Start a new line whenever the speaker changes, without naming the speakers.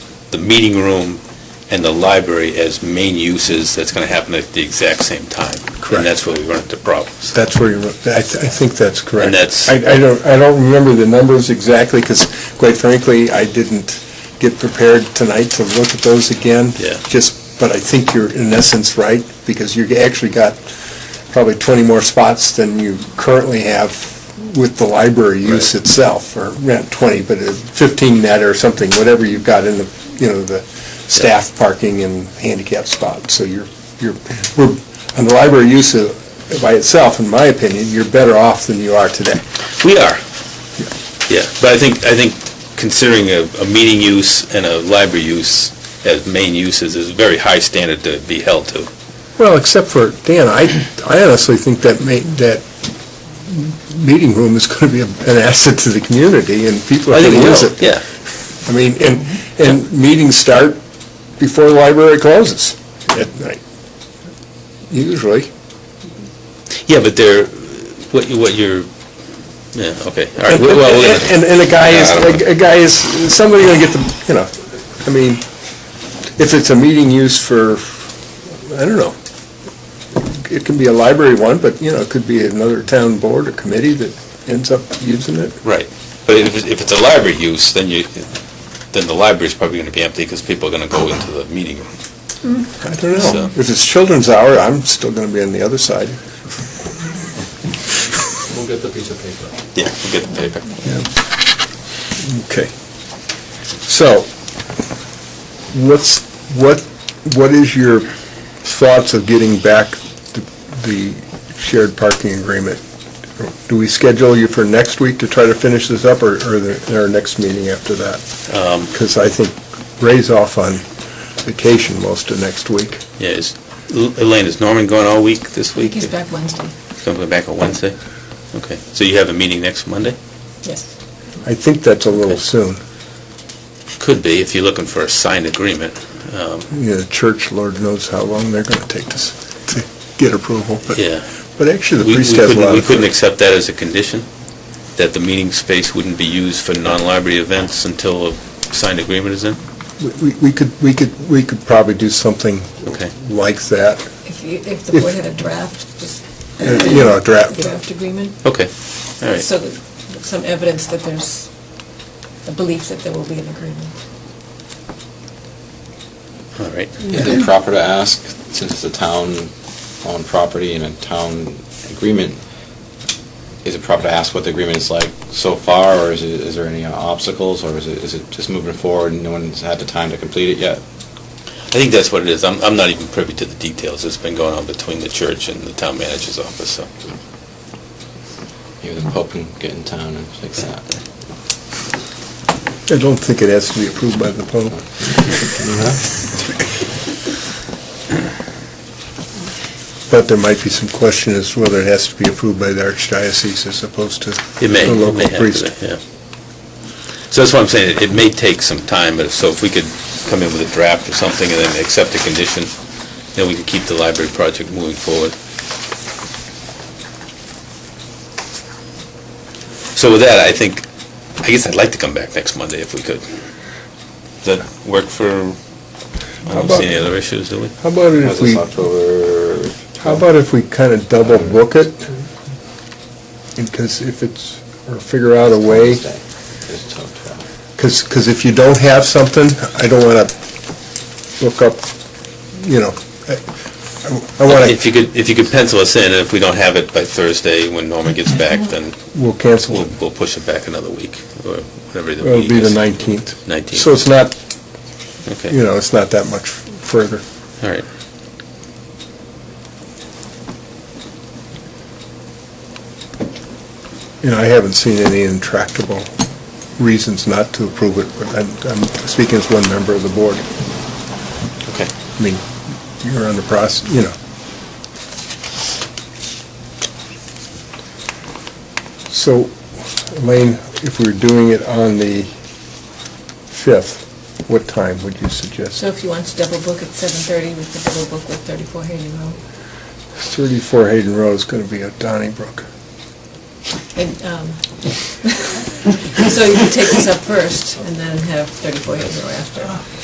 the meeting room and the library as main uses, that's going to happen at the exact same time.
Correct.
And that's where we run into problems.
That's where you, wrote- I, th- I think that's correct.
And that's-
I, I don't, I don't remember the numbers exactly, because quite frankly, I didn't get prepared tonight to look at those again.
Yeah.
Just, but I think you're in essence right, because you actually got probably 20 more spots than you currently have with the library use
Right.
itself, or not 20, but uh, 15 net or something, whatever you've got in the, you know, the staff parking and handicap spot. So you're, you're, we're, on the library use uh, by itself, in my opinion, you're better off than you are today.
We are. Yeah, but I think, I think considering a, a meeting use and a library use as main uses is a very high standard to be held to.
Well, except for, Dan, I, I honestly think that ma, that meeting room is going to be an asset to the community, and people are
I
going
think we
to use
will,
it.
yeah.
I mean, and, and meetings start before the library closes at night, usually.
Yeah, but they're, what you, what you're, yeah, okay, all right.
And,
well, we're gonna-
and, and a guy
Yeah, I don't
is, a guy is, somebody gonna get the, you know, I mean, if it's a meeting used for, I don't know, it can be a library one, but, you know, it could be another town board or committee that ends up using it.
Right, but if, it's- if it's a library use, then you, then the library's probably gonna be empty, because people are gonna go into the meeting room.
I don't
So-
know. If it's children's hour, I'm still gonna be on the other side.
We'll get the piece of paper.
Yeah, we'll get the paper.
Okay. So, what's, what, what is your thoughts of getting back the- the shared parking agreement? Do we schedule you for next week to try to finish this up, or, or the- our next meeting after that?
Um.
Because I think Ray's off on vacation most of next week.
Yeah, is, L- Elaine, is Norman going all week this week?
He's back Wednesday,
He's gonna go back on Wednesday? Okay, so you have a meeting next Monday?
yes.
I think that's a little soon.
Could be, if you're looking for a signed agreement. Um,
You know, the church, Lord knows how long they're going to take to, s- to get approval, but,
Yeah.
but actually the
We we
priest has a
couldn't,
lot
we
of...
couldn't accept that as a condition, that the meeting space wouldn't be used for non-library events until a signed agreement is in?
We- We we could, we could, we could probably do something
Okay.
like that,
If you, if the board had a draft, just
uh, you know,
a
draft.
draft agreement,
Okay, all right.
so that, some evidence that there's a belief that there will be an agreement.
All right.
Is it proper to ask, since it's a town-owned property and a town agreement, is it proper to ask what the agreement is like so far, or is it, is there any obstacles, or is it, is it just moving forward and no one's had the time to complete it yet?
I think that's what it is. I'm, I'm not even privy to the details. It's been going on between the church and the town manager's office, so.
Maybe the Pope can get in town and fix that.
I don't think it has to be approved by the Pope. But there might be some question as to whether it has to be approved by the archdiocese as opposed to
It may,
the
it
local
may have
priest.
to, yeah. So that's what I'm saying, it- it may take some time, but if, so if we could come in with a draft or something and then accept a condition, then we can keep the library project moving forward. So with that, I think, I guess I'd like to come back next Monday if we could. Does that work for, I
How
don't see
about-
any other issues, do we?
How about
How's
if we,
this October?
how about if we kind of double book it? Because if it's, or figure out a way.
Wednesday. It's till 12.
Because, because if you don't have something, I don't want to look up, you know, I- I want
If
to,
you could, if you could pencil us in, and if we don't have it by Thursday when Norman gets back, then
we'll cancel
We'll,
it.
we'll push it back another week, or whatever the
It'll
week
be the
is.
19th.
19th.
So it's not, you
Okay,
know, it's not that much further.
all right.
You know, I haven't seen any intractable reasons not to approve it, but I'm, I'm speaking as one member of the board.
Okay.
I mean, you're on the process, you know. So, Elaine, if we we're doing it on the 5th, what time would you suggest?
So if you want to double book at seven-thirty, we could double book with thirty-four Hayden Road.
34 Hayden Road is going to be at Donnybrook.
And, um, so you can take this up first and then have thirty-four Hayden Road after.